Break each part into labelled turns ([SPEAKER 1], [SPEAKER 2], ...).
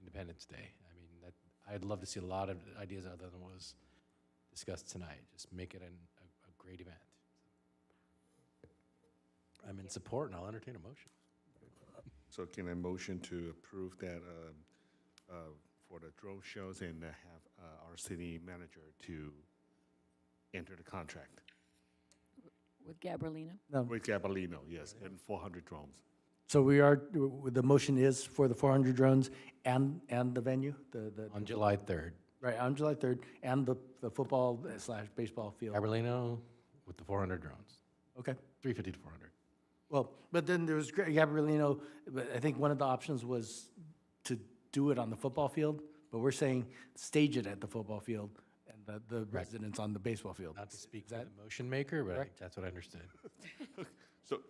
[SPEAKER 1] Independence Day. I mean, that, I'd love to see a lot of ideas other than what was discussed tonight. Just make it an, a, a great event. I'm in support and I'll entertain a motion.
[SPEAKER 2] So can I motion to approve that um, uh, for the drone shows and uh, have uh, our city manager to enter the contract?
[SPEAKER 3] With Gabrielina?
[SPEAKER 4] No,
[SPEAKER 2] With Gabalino, yes, and 400 drones.
[SPEAKER 4] so we are, the motion is for the four hundred drones and, and the venue, the, the,
[SPEAKER 1] On July 3rd,
[SPEAKER 4] right, on July third, and the, the football slash baseball field.
[SPEAKER 1] Aberlino with the 400 drones,
[SPEAKER 4] Okay,
[SPEAKER 1] 350 to 400.
[SPEAKER 4] well, but then there was Gra- Gabrielino, but I think one of the options was to do it on the football field, but we're saying stage it at the football field and the, the residents on the baseball field.
[SPEAKER 1] Not to speak for the motion maker, but I think that's what I understood.
[SPEAKER 2] So,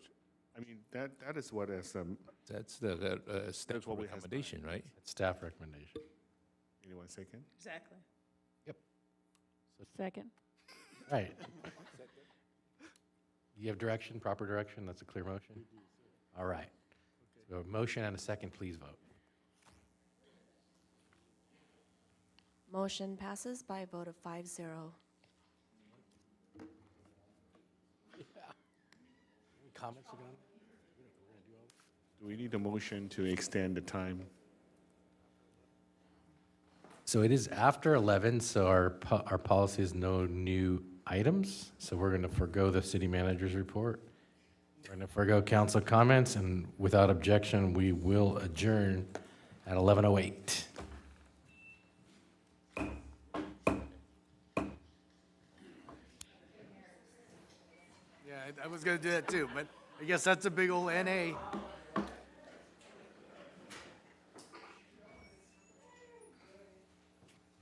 [SPEAKER 2] I mean, that, that is what is, um,
[SPEAKER 5] That's the, the uh, staff
[SPEAKER 2] what we have in mind.
[SPEAKER 5] recommendation, right?
[SPEAKER 1] That's staff recommendation.
[SPEAKER 2] anyone second?
[SPEAKER 6] Exactly.
[SPEAKER 3] Second?
[SPEAKER 1] Right. You have direction, proper direction, that's a clear motion? All right. So a motion and a second, please vote.
[SPEAKER 7] Motion passes by a vote of five zero.
[SPEAKER 1] Comments again?
[SPEAKER 2] Do we need a motion to extend the time?
[SPEAKER 1] So it is after 11, so our, po- our policy is no new items. So we're going to forego the city manager's report. We're going to forego council comments, and without objection, we will adjourn at 11:08.
[SPEAKER 4] Yeah, I was gonna do that too, but I guess that's a big old NA.